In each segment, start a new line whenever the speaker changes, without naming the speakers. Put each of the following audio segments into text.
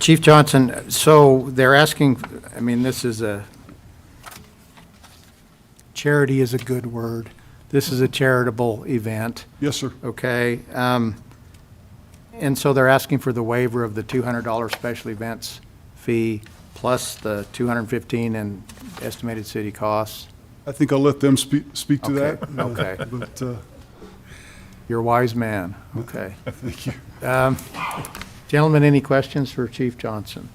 Chief Johnson, so they're asking, I mean, this is a, charity is a good word. This is a charitable event,
Yes, sir.
okay? Um, And so they're asking for the waiver of the $200 special events fee plus the 215 in estimated city costs.
I think I'll let them speak, speak to
Okay,
that. uh,
okay.
But, uh,
You're a wise man, okay.
thank you.
Gentlemen, any questions for Chief Johnson?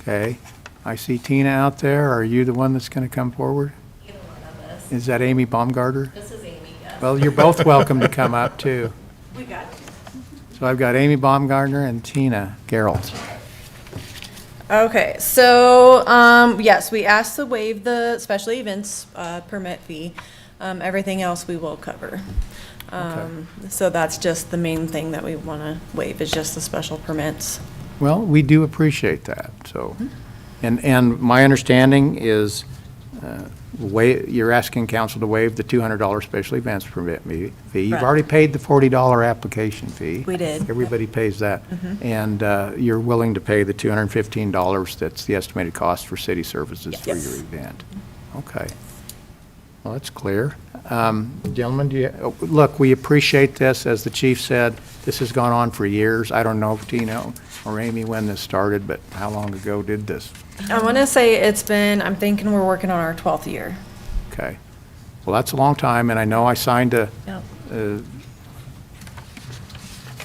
Okay, I see Tina out there. Are you the one that's going to come forward?
Either one of us.
Is that Amy Baumgarter?
This is Amy, yes.
Well, you're both welcome to come up, too.
We got you.
So I've got Amy Baumgartner and Tina Geralt.
Okay, so, um, yes, we asked to waive the special events, uh, permit fee. Um, everything else we will cover. Um, so that's just the main thing that we wanna waive is just the special permits.
Well, we do appreciate that, so. And, and my understanding is, uh, wa, you're asking council to waive the $200 special events permit me- fee. You've
Correct.
already paid the $40 application fee.
We did. Mm-hmm.
Everybody pays that. And uh, you're willing to pay the $215, that's the estimated cost for city services for
Yes.
your event. Okay. Well, that's clear. Um, Gentlemen, do you, oh, look, we appreciate this, as the chief said, this has gone on for years. I don't know if Tino or Amy when this started, but how long ago did this?
I wanna say it's been, I'm thinking we're working on our twelfth year.
Okay. Well, that's a long time, and I know I signed a
Yep.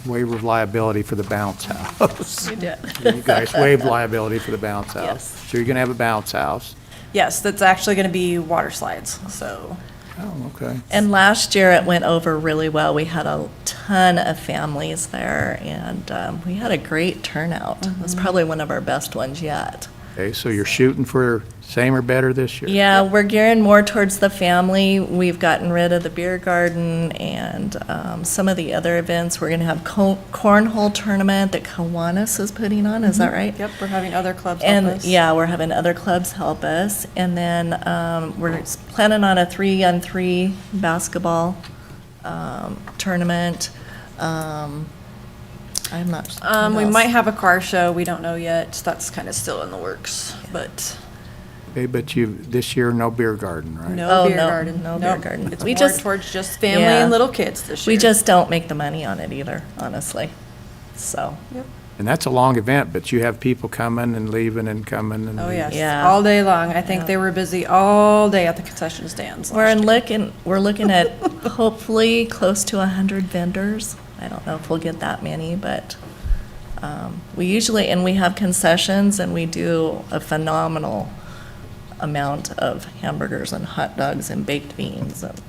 waiver of liability for the bounce house.
You did.
You guys waived liability for the bounce house.
Yes.
So you're going to have a bounce house.
Yes, that's actually gonna be water slides, so.
Oh, okay.
And last year, it went over really well. We had a ton of families there, and um, we had a great turnout. It was probably one of our best ones yet.
Okay, so you're shooting for same or better this year?
Yeah, we're gearing more towards the family. We've gotten rid of the beer garden and um, some of the other events. We're going to have co- cornhole tournament that Kiwanis is putting on. Is that right?
Yep, we're having other clubs help
And
us.
yeah, we're having other clubs help us, and then um, we're s- planning on a three-on-three basketball um, tournament. Um, I'm not.
Um, we
what
might
else?
have a car show, we don't know yet, that's kinda still in the works, but
Okay, but you, this year, no beer garden, right?
no
Oh,
beer
no,
garden.
no beer
Nope.
garden.
It's
We
more
just-
towards just family
Yeah.
and little kids this year.
We just don't make the money on it either, honestly. So
And that's a long event, but you have people coming and leaving and coming and.
Oh, yes,
leaving.
Yeah.
all day long. I think they were busy all day at the concession stands.
we're
last
in
year.
looking. We're looking at hopefully close to hundred vendors. I don't know if we'll get that many, but um, we usually and we have concessions and we do a phenomenal amount of hamburgers and hot dogs and baked beans. And,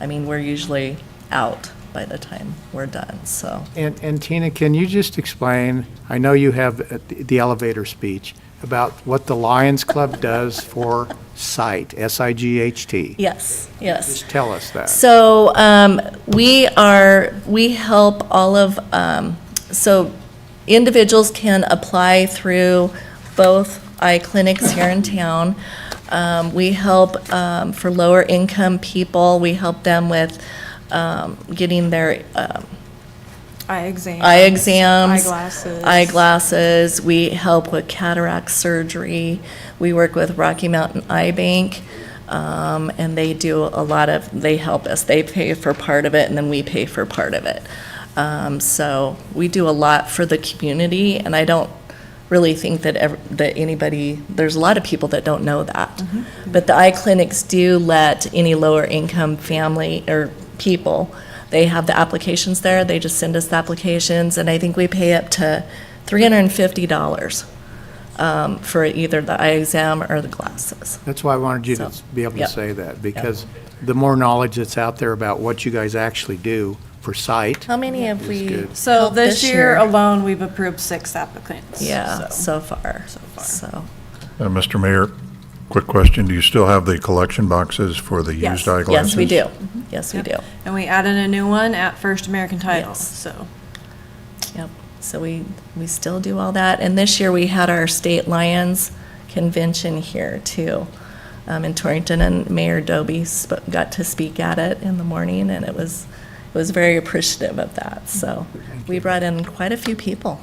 I mean, we're usually out by the time we're done. So
And, and Tina, can you just explain, I know you have uh, the elevator speech, about what the Lions Club does for sight, S-I-G-H-T.
yes, yes.
Just tell us that.
So um, we are, we help all of, um, so individuals can apply through both eye clinics here in town. Um, We help um, for lower income people, we help them with um, getting their um,
Eye exams.
eye exams.
Eyeglasses.
Eyeglasses. We help with cataract surgery. We work with Rocky Mountain Eye Bank. Um, and they do a lot of, they help us. They pay for part of it and then we pay for part of it. Um, so we do a lot for the community and I don't really think that ev- that anybody, there's a lot of people that don't know that. But the eye clinics do let any lower income family or people, they have the applications there, they just send us the applications, and I think we pay up to three hundred and fifty dollars um, for either the eye exam or the glasses.
That's why I wanted you to
So,
be able to
yep.
say that, because the more knowledge that's out there about what you guys actually do for sight,
How many have
That's
we?
good.
So
helped
this year alone, we've approved six applicants.
Yeah,
so.
so far,
So far.
so.
Uh, Mr. Mayor, quick question. Do you still have the collection boxes for the
Yes.
used eyeglasses?
Yes, we do. Yes, we do.
And we added a new one at First American Title,
Yes.
so.
Yep, so we, we still do all that. And this year, we had our State Lions Convention here, too, um, in Torrington, and Mayor Doby sp- got to speak at it in the morning, and it was, it was very appreciative of that, so. We brought in quite a few people.